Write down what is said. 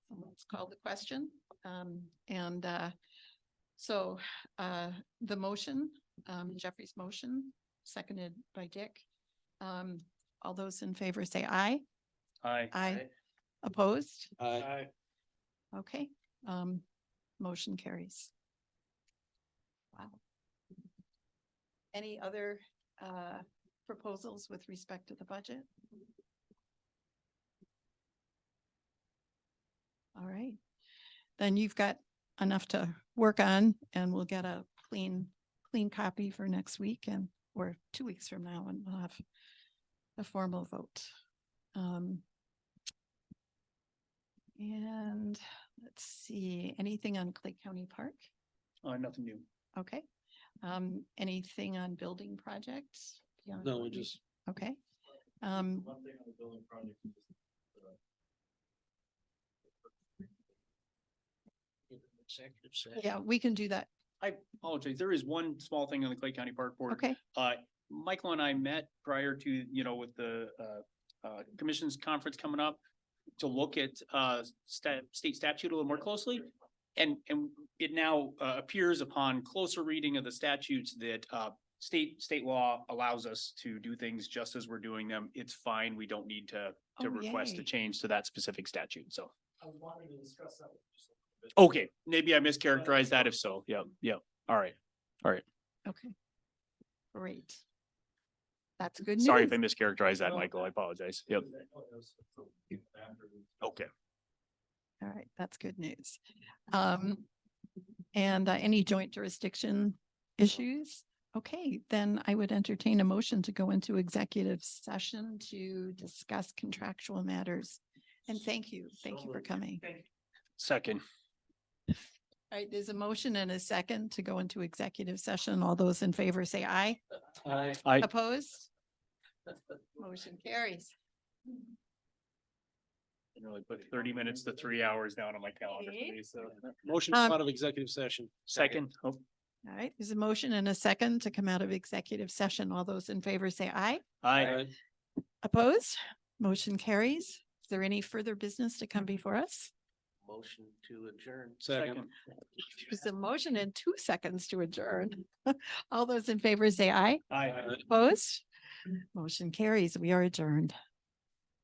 it's called the question. Um, and, uh, so, uh, the motion, um, Jeffrey's motion, seconded by Dick. Um, all those in favor say aye. Aye. Aye. Opposed? Uh, Aye. Okay, um, motion carries. Wow. Any other, uh, proposals with respect to the budget? All right, then you've got enough to work on and we'll get a clean, clean copy for next week and, or two weeks from now and we'll have a formal vote. Um, and Let's see, anything on Clay County Park? Uh, nothing new. Okay. Um, anything on building projects? beyond No, what we we- just, Okay. Um, One thing on the building project is just the. executive uh, session. yeah, we can do that. I apologize. There is one small thing on the Clay County Park Board. Okay, Uh, Michael and I met prior to, you know, with the, uh, uh, commission's conference coming up to look at, uh, stat, state statute a little more closely. And, and it now, uh, appears upon closer reading of the statutes that, uh, state, state law allows us to do things just as we're doing them. It's fine. We don't need to, to Oh, request yay. a change to that specific statute. So, I was wanting to discuss that. with you just a little bit. okay, maybe I mischaracterized that. If so, yeah, yeah. All right. okay. Great. That's good news. Sorry if I mischaracterized that, No, Michael. I apologize. Yep. Because I know it was from after we- Okay. All right, that's good news. Um, and uh, any joint jurisdiction issues? Okay, then I would entertain a motion to go into executive session to discuss contractual matters. And thank you, thank So you for moved. coming. Second. All right, there's a motion and a second to go into executive session. All those in favor say aye. Aye. I, Opposed? Motion carries. didn't really put thirty minutes to three hours down on my calendar. for Okay. these, so- Motion to come Um, out of executive session. Second, oh, All right, there's a motion and a second to come out of executive session. All those in favor say aye. aye. Aye. Opposed? Motion carries. Is there any further business to come before us? Motion to adjourn. Second. Second. There's a motion and two seconds to adjourn. All those in favor say aye. Aye. Opposed? Motion carries. We are adjourned.